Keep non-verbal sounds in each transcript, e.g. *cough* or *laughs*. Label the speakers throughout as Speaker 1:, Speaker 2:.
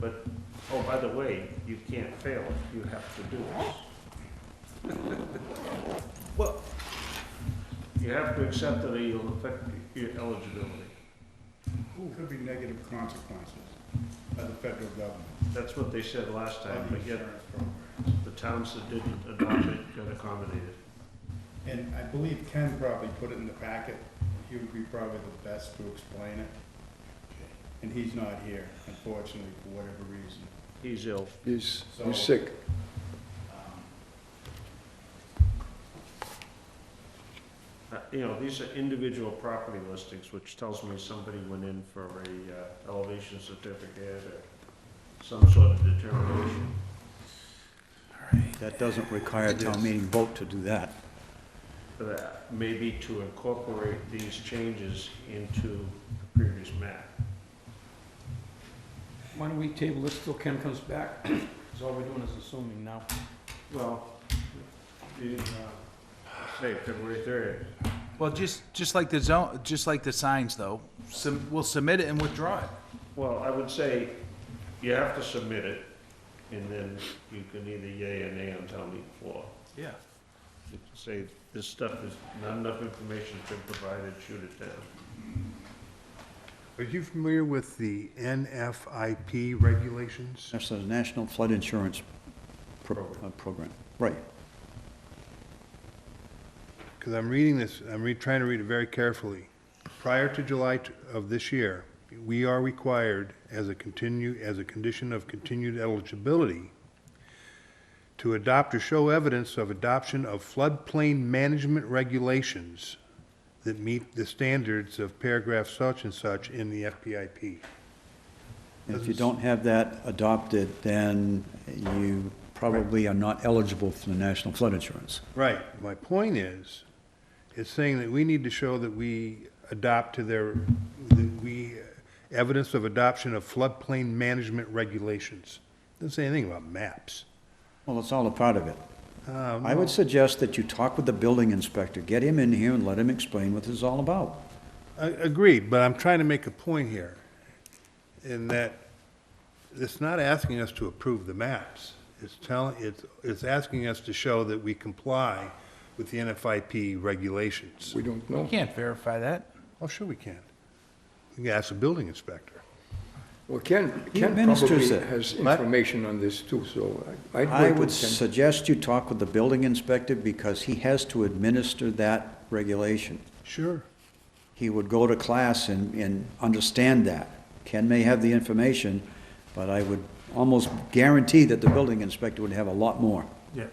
Speaker 1: But, oh, by the way, you can't fail, you have to do it. Well, you have to accept that it'll affect your eligibility.
Speaker 2: Could be negative consequences by the federal government.
Speaker 1: That's what they said last time,
Speaker 2: by the
Speaker 1: but yet
Speaker 2: insurance program.
Speaker 1: the towns that didn't adopt it got accommodated.
Speaker 2: And I believe Ken probably put it in the packet. He would be probably the best to explain it. And he's not here, unfortunately, for whatever reason.
Speaker 1: He's ill.
Speaker 3: He's, he's
Speaker 2: So-
Speaker 3: sick.
Speaker 1: Uh, You know, these are individual property listings, which tells me somebody went in for a uh, elevation certificate or some sort of determination.
Speaker 4: That doesn't require a town meeting vote to do that.
Speaker 1: for that, maybe to incorporate these changes into the previous map.
Speaker 5: Why don't we table this till Ken comes back? Because all we're doing is assuming now.
Speaker 1: Well, the, uh, say February third,
Speaker 6: Well, just, just like the zone, just like the signs though, sum, we'll submit it and withdraw it.
Speaker 1: well, I would say you have to submit it, and then you can either yay or nay on town meeting floor.
Speaker 6: Yeah.
Speaker 1: You can Say, this stuff is, not enough information has been provided, shoot it down.
Speaker 3: Are you familiar with the NFIP regulations?
Speaker 4: That's the National Flood Insurance Pro-
Speaker 1: Program.
Speaker 4: uh, Program. Right.
Speaker 3: Because I'm reading this, I'm re, trying to read it very carefully. Prior to July t- of this year, we are required as a continue, as a condition of continued eligibility to adopt or show evidence of adoption of floodplain management regulations that meet the standards of paragraph such and such in the FPIP.
Speaker 4: And if you don't have that adopted, then you probably are not eligible for the National Flood Insurance.
Speaker 3: Right, my point is, it's saying that we need to show that we adopt to their, that we, evidence of adoption of floodplain management regulations. Doesn't say anything about maps.
Speaker 4: Well, that's all a part of it. I would suggest that you talk with the building inspector, get him in here and let him explain what this is all about.
Speaker 3: I- Agreed, but I'm trying to make a point here, in that it's not asking us to approve the maps. It's telling, it's, it's asking us to show that we comply with the NFIP regulations.
Speaker 7: We don't know.
Speaker 6: Can't verify that.
Speaker 3: Oh, sure we can. We can ask the building inspector.
Speaker 7: Well, Ken,
Speaker 4: He
Speaker 7: Ken probably
Speaker 4: administers it.
Speaker 7: has information on this too, so I- I'd
Speaker 4: I
Speaker 7: wait
Speaker 4: would
Speaker 7: till Ken.
Speaker 4: suggest you talk with the building inspector because he has to administer that regulation.
Speaker 3: Sure.
Speaker 4: he would go to class and, and understand that. Ken may have the information, but I would almost guarantee that the building inspector would have a lot more.
Speaker 1: Yeah.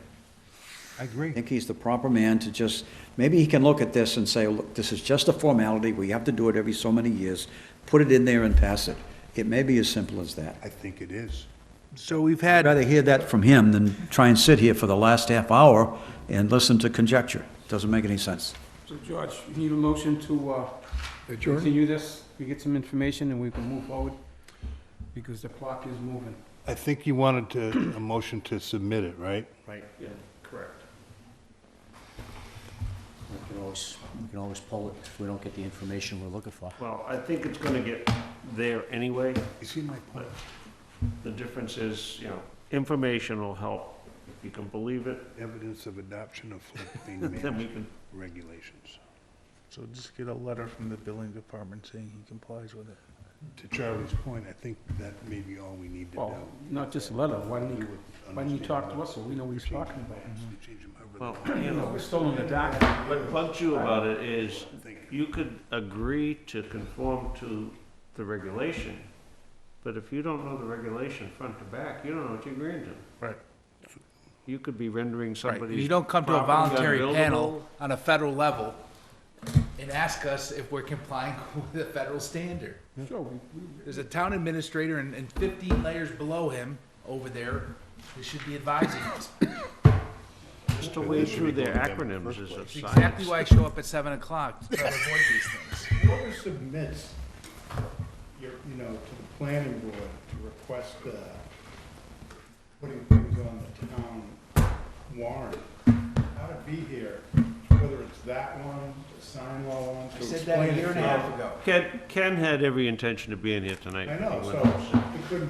Speaker 3: I
Speaker 4: I
Speaker 3: agree.
Speaker 4: think he's the proper man to just, maybe he can look at this and say, look, this is just a formality, we have to do it every so many years, put it in there and pass it. It may be as simple as that.
Speaker 3: I think it is.
Speaker 6: So we've
Speaker 4: I'd
Speaker 6: had,
Speaker 4: rather hear that from him than try and sit here for the last half hour and listen to conjecture. Doesn't make any sense.
Speaker 5: So George, you need a motion to uh,
Speaker 7: Adjourn?
Speaker 5: continue this? We get some information and we can move forward? Because the clock is moving.
Speaker 3: I think you wanted to, a motion to submit it, right?
Speaker 1: Right. Yeah, correct.
Speaker 8: We can always, we can always pull it if we don't get the information we're looking for.
Speaker 1: Well, I think it's gonna get there anyway.
Speaker 3: You see my point?
Speaker 1: The difference is, you know, information will help. If you can believe it,
Speaker 3: Evidence of adoption of
Speaker 5: *laughs*
Speaker 3: floodplain
Speaker 1: then we
Speaker 3: management
Speaker 1: can,
Speaker 3: regulations.
Speaker 6: so just get a letter from the building department saying he complies with it.
Speaker 3: To Charlie's point, I think that may be all we need to do.
Speaker 5: Well, not just a letter, Uh, why don't
Speaker 3: You
Speaker 5: you,
Speaker 3: would
Speaker 5: why don't you talk to
Speaker 3: understand
Speaker 5: us so we know what he's
Speaker 3: that.
Speaker 5: talking about?
Speaker 3: Change- change them over
Speaker 1: well,
Speaker 3: there.
Speaker 1: you know,
Speaker 5: We're still in the dark.
Speaker 1: What bugs you about it is,
Speaker 3: Thank
Speaker 1: you could agree to conform to the regulation, but if you don't know the regulation front to back, you don't know what you're agreeing to.
Speaker 3: Right.
Speaker 1: You could be rendering
Speaker 6: Right,
Speaker 1: somebody's.
Speaker 6: you don't come to a
Speaker 1: property
Speaker 6: voluntary panel
Speaker 1: unbuildable.
Speaker 6: on a federal level and ask us if we're complying *laughs* with the federal standard.
Speaker 5: Sure, we, we
Speaker 6: There's a town administrator and, and fifteen layers below him over there who should be advising us.
Speaker 1: Just to wade through their acronyms is a
Speaker 6: It's
Speaker 1: science.
Speaker 6: Exactly why I show up at seven o'clock to try to avoid these things.
Speaker 2: Whoever submits, your, you know, to the planning board to request, uh, putting things on the town warrant, how to be here, whether it's that one, the sign law one, to
Speaker 6: I
Speaker 2: explain
Speaker 6: said that a
Speaker 2: it
Speaker 6: year and a
Speaker 2: to-
Speaker 6: half ago.
Speaker 1: Ken, Ken had every intention of being here tonight.
Speaker 2: I
Speaker 1: He
Speaker 2: know,
Speaker 1: went
Speaker 2: so, it couldn't